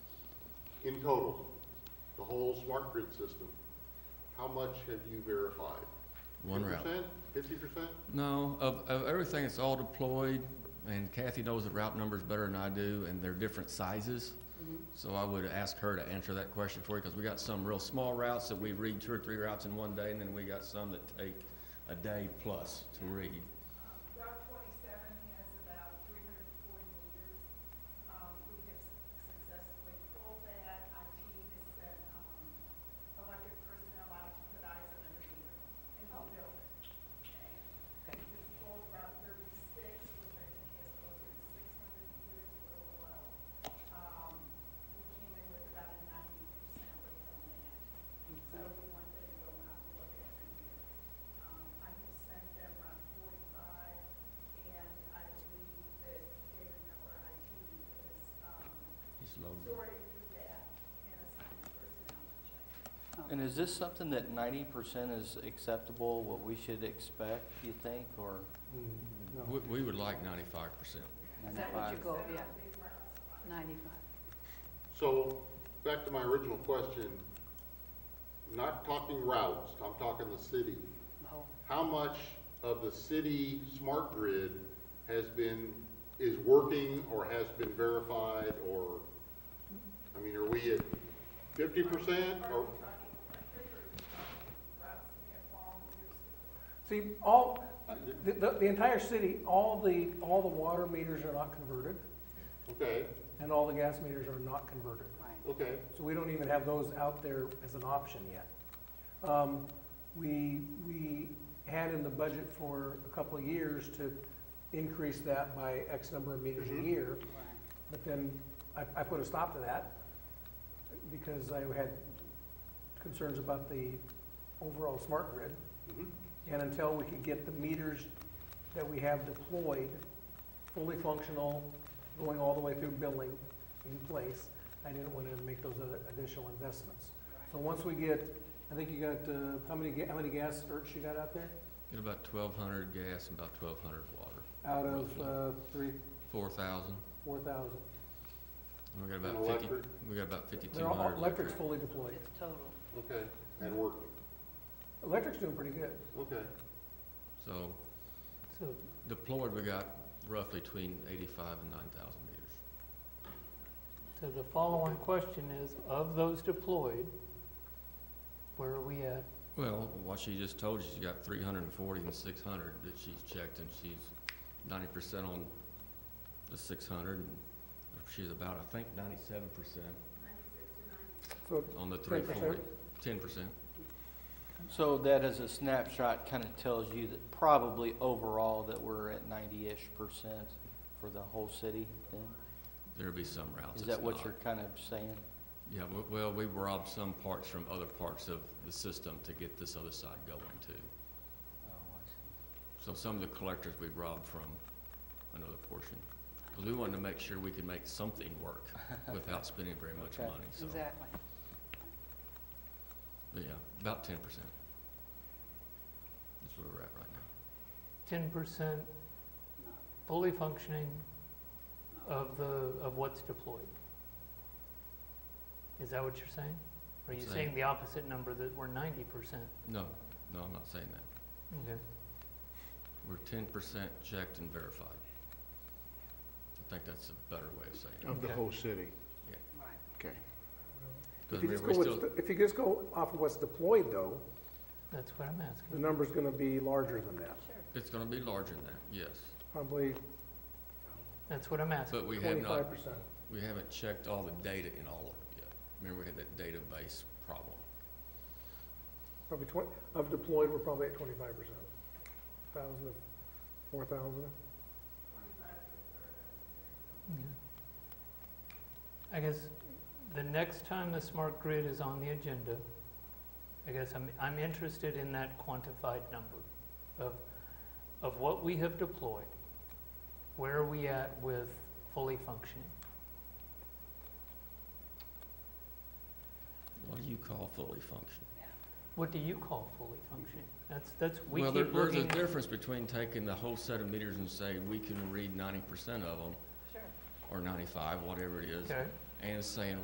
in total, the whole smart grid system, how much have you verified? One route. Fifty percent? No, of, of everything, it's all deployed, and Kathy knows the route numbers better than I do, and they're different sizes. Mm-hmm. So I would ask her to answer that question for you, because we got some real small routes that we read two or three routes in one day, and then we got some that take a day plus to read. Route twenty-seven has about three hundred and forty meters. Um, we have successfully pulled that. IT has sent, um, electric personnel out to put eyes on the meter in the building. Okay? We pulled Route thirty-six, which I think has closer to six hundred meters or below. Um, we came in with about a ninety percent rate on that. So we want them to go out and look at it here. Um, I have sent them around forty-five, and I believe that David Miller IT is, um, Just load. sorting through that and assigning personnel to check. And is this something that ninety percent is acceptable, what we should expect, you think, or We, we would like ninety-five percent. Is that what ninety-five? your goal, yeah? Ninety-five. So, back to my original question, not talking routes, I'm talking the city. Oh, How much of the city smart grid has been, is working or has been verified or, I mean, are we at fifty percent or? See, all, the, the, the entire city, all the, all the water meters are not converted, Okay, and all the gas meters are not converted. right. okay, So we don't even have those out there as an option yet. Um, we, we had in the budget for a couple of years to increase that by X number of meters a Mhm. year, right. but then I, I put a stop to that because I had concerns about the overall smart grid. mhm, And until we could get the meters that we have deployed fully functional, going all the way through billing in place, I didn't want to make those other additional investments. So once we get, I think you got, uh, how many, ga- how many gas certs you got out there? Get about twelve hundred gas and about twelve hundred water, Out of, uh, three, four thousand, four thousand. and we got And about fifty, electric? we got about fifty-two They're all, hundred. electric's fully deployed. It's total. okay, and working, Electric's doing pretty good. okay. So So. deployed, we got roughly between eighty-five and nine thousand meters. So the follow-on question is, of those deployed, where are we at? Well, what she just told you, she got three hundred and forty and six hundred that she's checked, and she's ninety percent on the six hundred, and she's about, I think, ninety-seven percent So on the three forty. Ten percent. So that as a snapshot kind of tells you that probably overall that we're at ninety-ish percent for the whole city then? There'll be some routes. Is it's that what not. you're kind of saying? Yeah, we- well, we robbed some parts from other parts of the system to get this other side going too. So some of the collectors we robbed from another portion, because we wanted to make sure we could make something work without spending very much Okay. money, so. Exactly. But yeah, about ten percent. That's where we're at right now. Ten percent No. fully functioning of the, of what's deployed? Is that what you're saying? Or Are you Saying- saying the opposite number, that we're ninety percent? No, no, I'm not saying that. Okay. We're ten percent checked and verified. I think that's a better way of saying it. Of the whole city. Right. If 'Cause you we- just we go still- with, if you just go off of what's deployed though, That's what I'm the asking. number's gonna be larger than that. Sure. It's gonna be larger than that, yes. Probably That's what I'm asking. But we have not, twenty-five percent. we haven't checked all the data in all of it yet. Remember, we had that database problem. Probably twenty, of deployed, we're probably at twenty-five percent. Thousand of, four thousand. Yeah. I guess the next time the smart grid is on the agenda, I guess I'm, I'm interested in that quantified number of, of what we have deployed. Where are we at with fully functioning? What do you call fully functioning? What do you call fully functioning? That's, that's, we Well, there- keep there's a looking. difference between taking the whole set of meters and saying, we can read ninety percent of them, Sure. or ninety-five, whatever it is, Okay. and saying,